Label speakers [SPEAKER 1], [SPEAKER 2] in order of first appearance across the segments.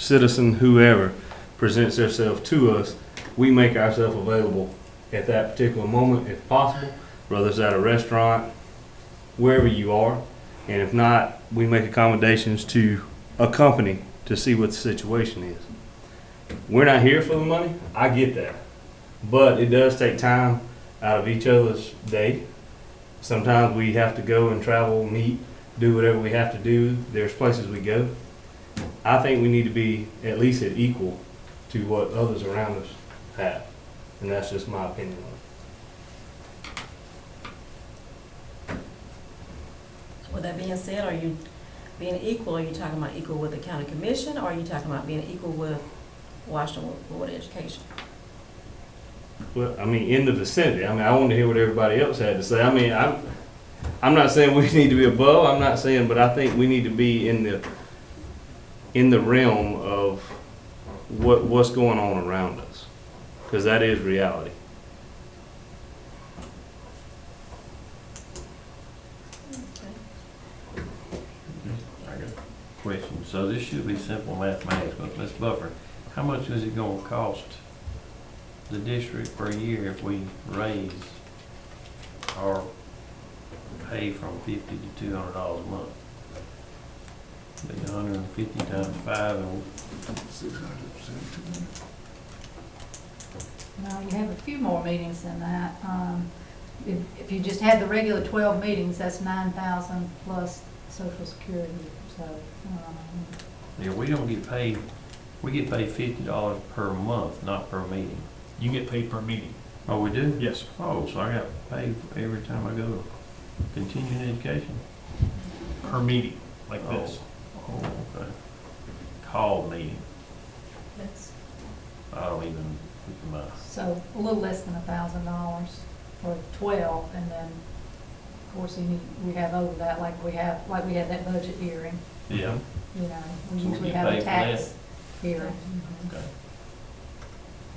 [SPEAKER 1] citizen, whoever presents themselves to us, we make ourselves available at that particular moment if possible, whether it's at a restaurant, wherever you are. And if not, we make accommodations to accompany to see what the situation is. We're not here for the money, I get that. But it does take time out of each other's day. Sometimes we have to go and travel, meet, do whatever we have to do. There's places we go. I think we need to be at least at equal to what others around us have. And that's just my opinion on it.
[SPEAKER 2] With that being said, are you being equal, are you talking about equal with the county commission, or are you talking about being equal with Washington Board of Education?
[SPEAKER 1] Well, I mean, in the vicinity. I mean, I wanted to hear what everybody else had to say. I mean, I'm, I'm not saying we need to be above, I'm not saying, but I think we need to be in the, in the realm of what, what's going on around us. Cause that is reality.
[SPEAKER 3] I got a question. So this should be simple mathematics, but let's buffer. How much is it gonna cost the district per year if we raise or pay from fifty to two hundred dollars a month? Be a hundred and fifty times five and
[SPEAKER 4] Six hundred, seven hundred.
[SPEAKER 5] No, you have a few more meetings than that. Um, If if you just had the regular 12 meetings, that's 9,000 plus social security, so. um,
[SPEAKER 3] yeah, we don't get paid, we get paid fifty dollars per month, not per meeting.
[SPEAKER 6] You get paid per meeting.
[SPEAKER 3] Oh, we do?
[SPEAKER 6] Yes.
[SPEAKER 3] Oh, so I got paid every time I go to continuing education?
[SPEAKER 6] Per meeting, like this.
[SPEAKER 3] Oh, okay. Call meeting.
[SPEAKER 2] That's
[SPEAKER 3] I don't even, my,
[SPEAKER 5] So a little less than $1,000 for 12, and then, of course, you need, we have over that, like we have, like we had that budget hearing,
[SPEAKER 3] yeah,
[SPEAKER 5] you know, we
[SPEAKER 3] So we
[SPEAKER 5] usually
[SPEAKER 3] get
[SPEAKER 5] have
[SPEAKER 3] paid
[SPEAKER 5] a
[SPEAKER 3] for
[SPEAKER 5] tax hearing. Mhm.
[SPEAKER 3] okay.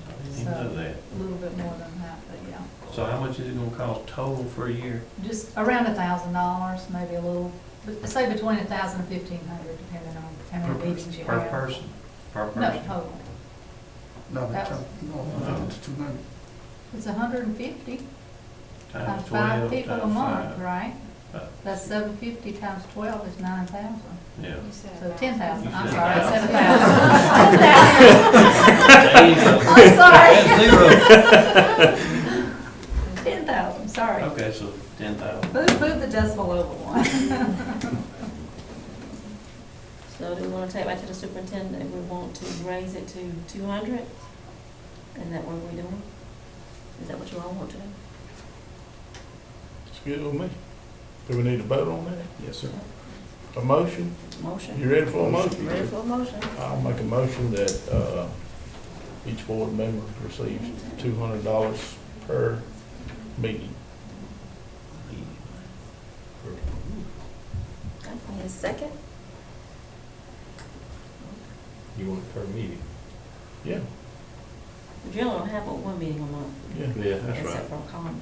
[SPEAKER 3] I didn't even know that.
[SPEAKER 5] A little bit more than that, but yeah.
[SPEAKER 3] So how much is it gonna cost total for a year?
[SPEAKER 5] Just around a thousand dollars, maybe a little, but say between a thousand and fifteen hundred, depending on how
[SPEAKER 3] Per
[SPEAKER 5] many meetings you
[SPEAKER 3] Per
[SPEAKER 5] have.
[SPEAKER 3] person, per
[SPEAKER 5] No, oh,
[SPEAKER 3] person.
[SPEAKER 5] total.
[SPEAKER 4] No,
[SPEAKER 5] That
[SPEAKER 4] but,
[SPEAKER 5] was-
[SPEAKER 4] no, it's two hundred.
[SPEAKER 5] It's a hundred and fifty,
[SPEAKER 3] Times
[SPEAKER 5] times five
[SPEAKER 3] twelve, times
[SPEAKER 5] people a month,
[SPEAKER 3] five.
[SPEAKER 5] right?
[SPEAKER 3] Uh,
[SPEAKER 5] That's seven fifty times twelve is nine thousand,
[SPEAKER 3] Yeah.
[SPEAKER 5] so ten thousand, I'm
[SPEAKER 3] You said
[SPEAKER 5] sorry,
[SPEAKER 3] thousand.
[SPEAKER 5] seven thousand. I'm sorry,
[SPEAKER 3] Zero.
[SPEAKER 5] ten thousand, sorry.
[SPEAKER 3] Okay, so ten thousand.
[SPEAKER 5] Move, move the decimal over one.
[SPEAKER 2] So do we wanna take back to the superintendent, if we want to raise it to two hundred? Is that what we're doing? Is that what you all want to do?
[SPEAKER 7] It's good with me. Do we need to vote on that?
[SPEAKER 6] Yes, sir.
[SPEAKER 7] A motion?
[SPEAKER 2] Motion?
[SPEAKER 7] You ready for a motion?
[SPEAKER 2] Ready for a motion?
[SPEAKER 7] I'll make a motion that, uh, each board member receives two hundred dollars per meeting.
[SPEAKER 2] Okay, Need a second?
[SPEAKER 1] You want it per meeting?
[SPEAKER 7] Yeah,
[SPEAKER 2] You don't have but one meeting a month,
[SPEAKER 7] yeah.
[SPEAKER 1] Yeah, that's right.
[SPEAKER 2] except for a common.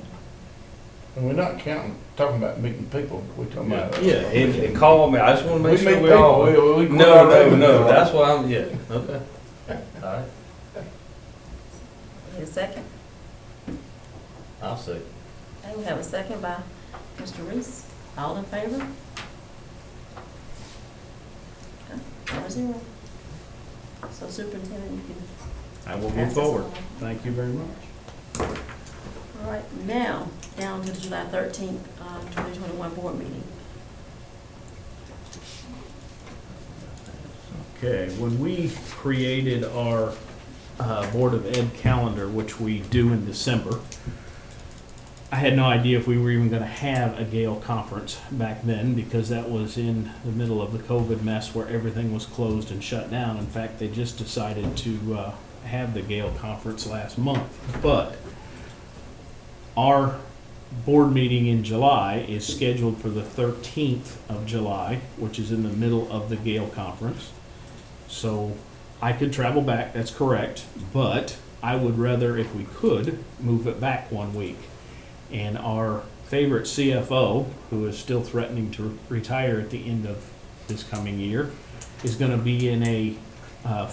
[SPEAKER 7] And we're not counting, talking about meeting people, we're talking about.
[SPEAKER 1] Yeah, and, and call me, I just wanna
[SPEAKER 7] We
[SPEAKER 1] make
[SPEAKER 7] meet
[SPEAKER 1] sure
[SPEAKER 7] people,
[SPEAKER 1] we all.
[SPEAKER 7] we, we.
[SPEAKER 1] No, no, no, that's why I'm, yeah, okay. All right,
[SPEAKER 2] Need a second?
[SPEAKER 1] I'll see.
[SPEAKER 2] Okay, we have a second by Mr. Reese. All in favor? Okay, Four zero. So superintendent, you can
[SPEAKER 3] I will
[SPEAKER 2] pass
[SPEAKER 3] move
[SPEAKER 2] this
[SPEAKER 3] forward.
[SPEAKER 2] along.
[SPEAKER 3] Thank you very much.
[SPEAKER 2] All right, now, down to the July thirteenth, uh, twenty twenty-one board meeting.
[SPEAKER 6] Okay, when we created our uh, Board of Ed calendar, which we do in December, I had no idea if we were even going to have a Gale conference back then because that was in the middle of the COVID mess where everything was closed and shut down. In fact, they just decided to uh, have the Gale conference last month. But our board meeting in July is scheduled for the 13th of July, which is in the middle of the Gale conference. So I could travel back, that's correct, but I would rather, if we could, move it back one week. And our favorite CFO, who is still threatening to retire at the end of this coming year, is gonna be in a, uh,